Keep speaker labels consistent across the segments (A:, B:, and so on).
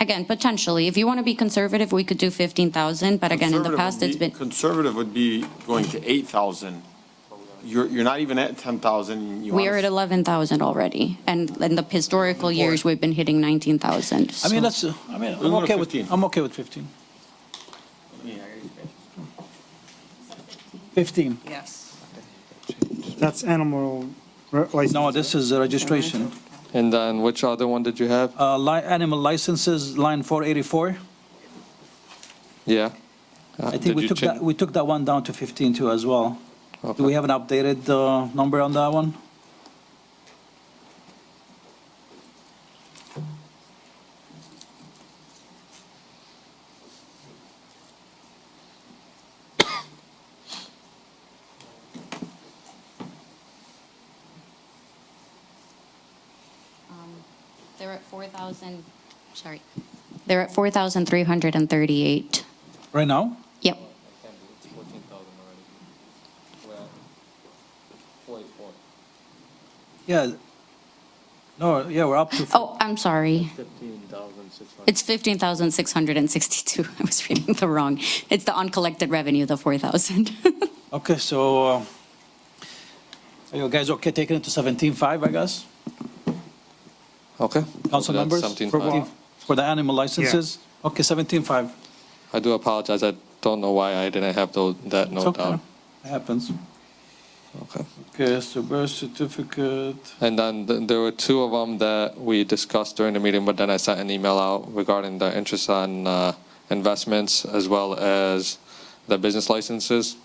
A: Again, potentially, if you want to be conservative, we could do 15,000, but again, in the
B: Conservative
A: past,
B: would
A: it's
B: be-
A: been,
B: Conservative would be going to 8,000. You're, you're not even at 10,000. You
A: we
B: wanna
A: are at 11,000 already. And in the historical years, we've been hitting 19,000.
C: I
A: so-
C: mean, that's, uh, I mean,
B: We'll
C: I'm
B: go to
C: okay with,
B: 15.
C: I'm okay with 15. 15.
D: Yes.
E: That's animal re- license.
C: No, this is uh, registration.
F: And then which other one did you have?
C: Uh, li, animal licenses, line 484.
F: Uh, Yeah.
C: I think we took that, we took that one down to 15 too as well. Do we
F: Okay.
C: have an updated, uh, number on that one?
A: They're at 4,000, sorry. They're at 4,338.
C: Right now?
A: Yep.
C: Yeah. No, yeah, we're up to,
A: Oh, I'm sorry. It's 15,662. I was reading the wrong. It's the uncollected revenue, the 4,000.
C: okay, so, uh, are you guys okay taking it to 17.5, I guess?
F: Okay.
C: Council
F: So that's
C: members?
F: 17.5.
C: For the animal licenses? Okay, 17.5.
F: I do apologize. I don't know why I didn't have those, that
C: It's
F: note
C: okay.
F: down.
C: It happens.
F: Okay.
C: Okay, so birth certificate.
F: And then th- there were two of them that we discussed during the meeting, but then I sent an email out regarding the interest on uh, investments as well as the business licenses.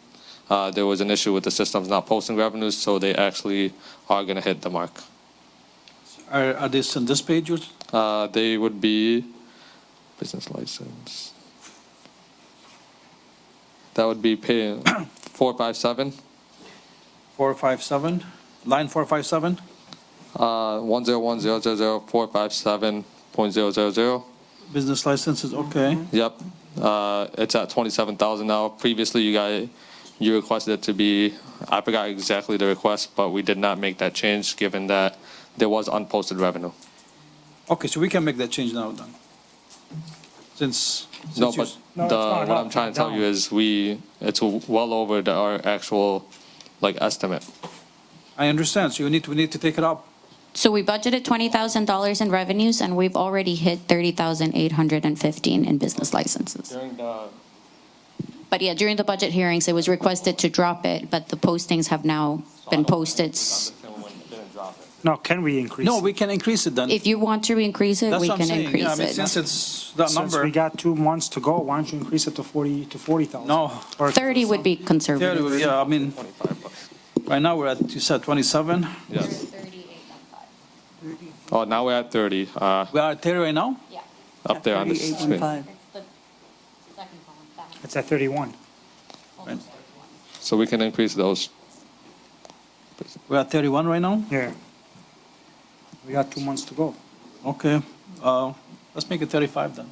F: Uh, There was an issue with the systems not posting revenues, so they actually are going to hit the mark.
C: Are, are these on this page? or-
F: Uh, They would be business license. That would be pay 457,
C: Four, five, seven? Line four, five, seven?
F: uh, 101000457.000.
C: Business licenses, okay.
F: Yep, uh, it's at twenty-seven thousand now. Previously, you got, you requested it to be, I forgot exactly the request, but we did not make that change, given that there was unposted revenue.
E: Mm-hmm.
C: Okay, so we can make that change now then. Since,
F: No,
C: since you,
F: but the, what I'm trying to tell you is we, it's well over the, our actual, like, estimate.
C: I understand, so you need, to- we need to take it up.
A: So we budgeted $20,000 in revenues and we've already hit 30,815 in business licenses.
F: During
C: uh,
F: the.
A: But yeah, during the budget hearings, it was requested to drop it, but the postings have now been posted.
E: Now, can we increase?
C: No,
E: it?
C: we can increase it then.
A: If you want to increase it,
C: That's
A: we
C: what
A: can
C: I'm saying. Yeah, I
A: increase
C: mean,
A: it.
C: Since it's that
E: Since
C: number,
E: we got two months to go, why don't you increase it to 40, to 40,000?
C: No.
E: Or-
A: 30 would be conservative.
C: theory, yeah, I mean, right now we're at, you said 27?
F: Yes. Oh, now we're at thirty, uh,
C: We are at 30 right now?
A: Yeah,
F: up there on the screen.
A: it's the second column.
E: It's at 31.
F: So we can increase those.
C: We're at 31 right now?
E: Yeah. We got two months to go.
C: Okay, uh, let's make it 35 then.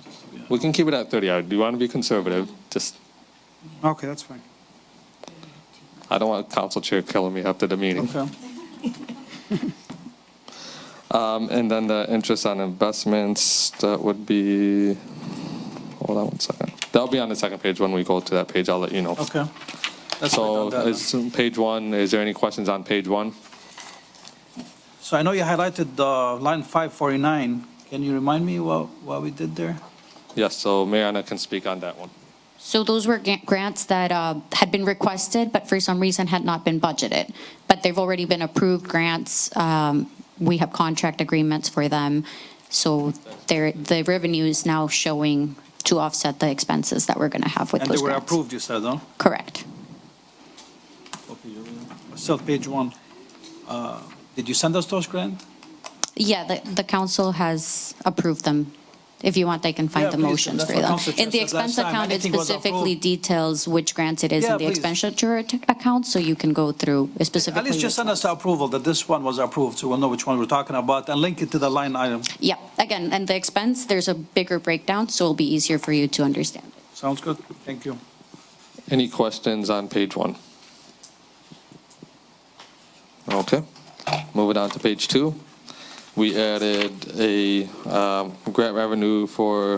F: We can keep it at thirty. I do want to be conservative, just
E: Okay, that's fine.
F: I don't want council chair killing me after the meeting.
C: Okay.
F: Um, and then the interest on investments, that would be, hold on one second. That'll be on the second page when we go to that page, I'll let you know.
C: Okay. That's what
F: So
C: I done that.
F: it's page one, is there any questions on page one?
C: So I know you highlighted the line 549. Can you remind me what, what we did there?
F: Yes, so Mariana can speak on that one.
A: So those were ga- grants that uh, had been requested, but for some reason had not been budgeted. But they've already been approved grants. Um, We have contract agreements for them. So they're, the revenue is now showing to offset the expenses that we're going to have with
C: And they
A: those
C: were
A: grants.
C: approved, you said, huh?
A: Correct.
C: Still page one. Uh, Did you send us those grant?
A: Yeah, the, the council has approved them. If you want, I can
C: Yeah,
A: find the
C: please,
A: motions
C: that's
A: for
C: what
A: them.
C: Council Chair
A: In the
C: said
A: expense
C: last time,
A: account, it
C: anything was
A: specifically
C: approved.
A: details which grants it is
C: Yeah,
A: in the
C: please.
A: expenditure ac- account, so you can go through specifically.
C: At least just
A: which
C: send us the
A: ones.
C: approval that this one was approved, so we'll know which one we're talking about, and link it to the line item.
A: Yeah, again, and the expense, there's a bigger breakdown, so it'll be easier for you to understand.
C: Sounds good? Thank you.
F: Any questions on page one? Okay, moving on to page two. We added a um, grant revenue for